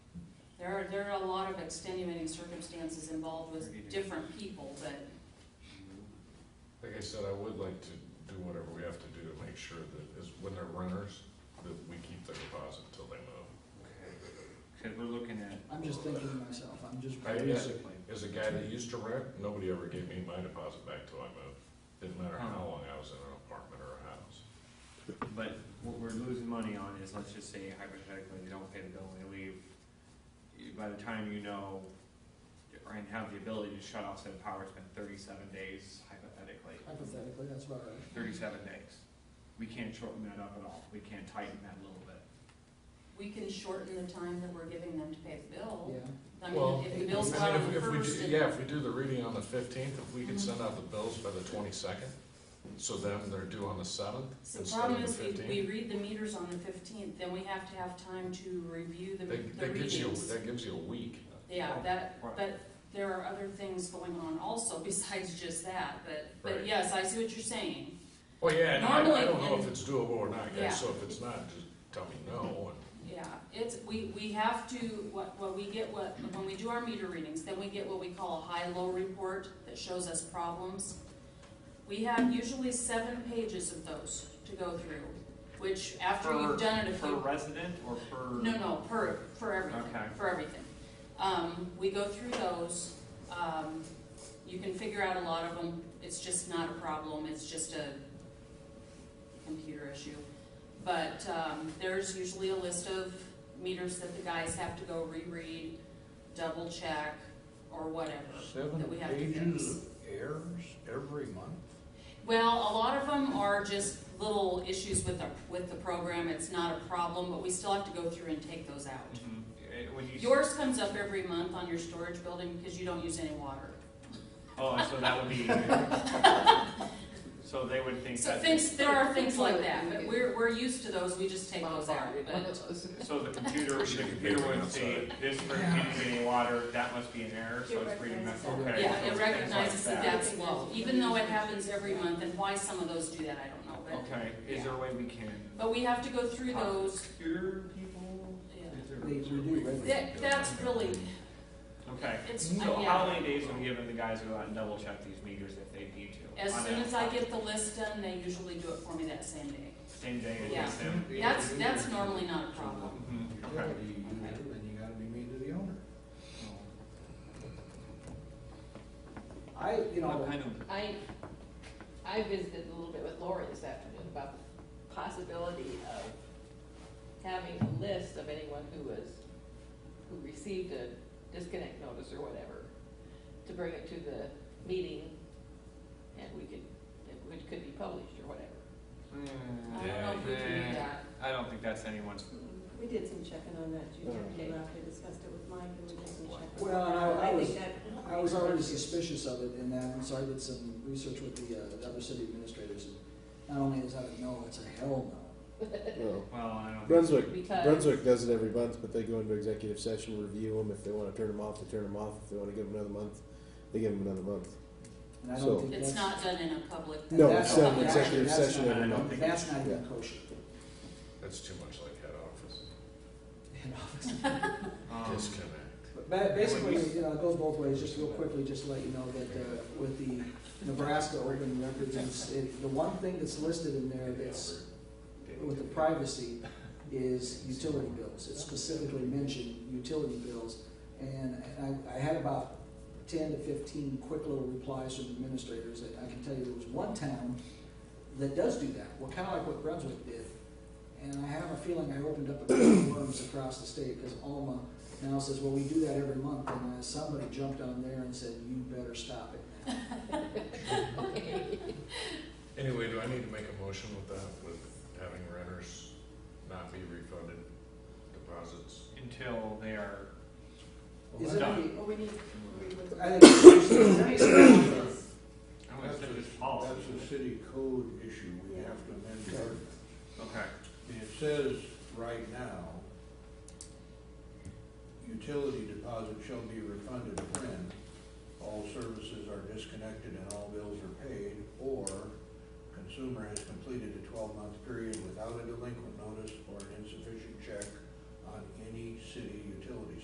There are, there are a lot of extenuating circumstances involved with different people, but Like I said, I would like to do whatever we have to do to make sure that, is when they're renters, that we keep their deposit until they move. Cause we're looking at, I'm just thinking to myself, I'm just I- yeah. basically, As a guy that used to rent, nobody ever gave me my deposit back till I moved. Didn't matter how long I was in an apartment or a house. but what we're losing money on is, let's just say hypothetically, they don't pay the bill, and they leave. You- By the time you know, and have the ability to shut off said power, it's been thirty-seven days hypothetically, hypothetically, that's about right. thirty-seven days. We can't shorten that up at all, we can't tighten that a little bit. we can shorten the time that we're giving them to pay the bill. Yeah, I Well, mean, if the I bill's mean, go out if- on the if we do- first, and- Mm-hmm. Yeah, if we do the reading on the fifteenth, if we could send out the bills by the twenty-second, so then they're due on the seventh so instead of problem the is, we, we fifteenth. read the meters on the fifteenth, then we have to have time to review the, That, the that gives you, readings. that gives you a week. Yeah, that, Right. but there are other things going on also besides just that, but, Right. but yes, I see what you're saying. Well, yeah, and I, I Normally, don't know and- if it's doable or not, Yeah. guys, so if it's not, just tell me no, Yeah, it's, we, we have to, what, what we get, what, when we do our meter readings, then we get what we call a high-low report that shows us problems. We have usually seven pages of those to go through, which after Per- you've done it a Per few. resident or per? No, no, per, for everything, Okay. for everything. Um, we go through those, um, you can figure out a lot of them, it's just not a problem, it's just a computer issue. But, um, there's usually a list of meters that the guys have to go reread, double check, or whatever, Seven that we have to fix. pages of errors every month? Well, a lot of them are just little issues with the, with the program, it's not a problem, but we still have to go through and take those out. Mhm. Eh, When you. s- Yours comes up every month on your storage building because you don't use any water. Oh, and so that would be. So they would think So that. things, there are things like that, but we're, we're used to those, we just take those out, but, So the computer, the Should be computer paper would say, this person can't get any water, that must be an error, so it's reading that, okay. yeah, so it things like recognizes that that's that. low, even though it happens every month, and why some of those do that, I don't know, but, Okay, is there a way we can? but we have to go through those. Cure people? Yeah. Is there- We, we is there a do way- regularly. That, that's really, Okay, it's, so how yeah, many days are we giving the guys to go out and double check these meters if they need to? as On soon that as I get the list done, they usually do it for me that same day. Same day as Yeah. they send? That's, that's normally not a problem. Mhm, You Okay. gotta be, you do, and you gotta be mean to the owner. I, you know, What kind of, I, I visited a little bit with Lori this afternoon about the possibility of having a list of anyone who was, who received a disconnect notice or whatever, to bring it to the meeting, and we could, it would, could be published or whatever. Mm, I don't know if we can do that. I don't think that's anyone's, We did some checking on that, Judy, Okay. you after discussed it with Mike, and we did some checking. Well, and I- I was- think that- I was already suspicious of it in that, and so I did some research with the, uh, the other city administrators, and not only is that a no, it's a hell no. No. well, I don't. Brunswick Because- Brunswick does it every month, but they go into executive session, review them. If they want to turn them off, they turn them off. If they want to give them another month, they give them another month. And I So- don't think that's. It's not done in a public. No, that's it's not- not an that's- executive that's session not- every month. That's not even kosher That's too much like head office. in office. um, Disconnect. But ba- basically, you know, it goes both ways, just real quickly, just to let you know that uh, with the Nebraska Open Records, it's- it- the one thing that's listed in there that's with the privacy is utility bills. It specifically mentioned utility bills. And and I, I had about ten to fifteen quick little replies from administrators. I I can tell you there was one town that does do that, well, kind of like what Brunswick did. And I have a feeling I opened up a can of worms across the state because Alma now says, well, we do that every month. And uh, somebody jumped on there and said, you better stop it. Anyway, do I need to make a motion with that, with having renters not be refunded deposits? Until they are, Is Well, it that- any, Well, we need, we need to- I think, is there any Yes. I would That's say this a, policy. that's a city code issue, we Yeah. have to amend the ordinance. Okay, It says right now, utility deposit shall be refunded when all services are disconnected and all bills are paid, or consumer has completed a twelve-month period without a delinquent notice or an insufficient check on any city utility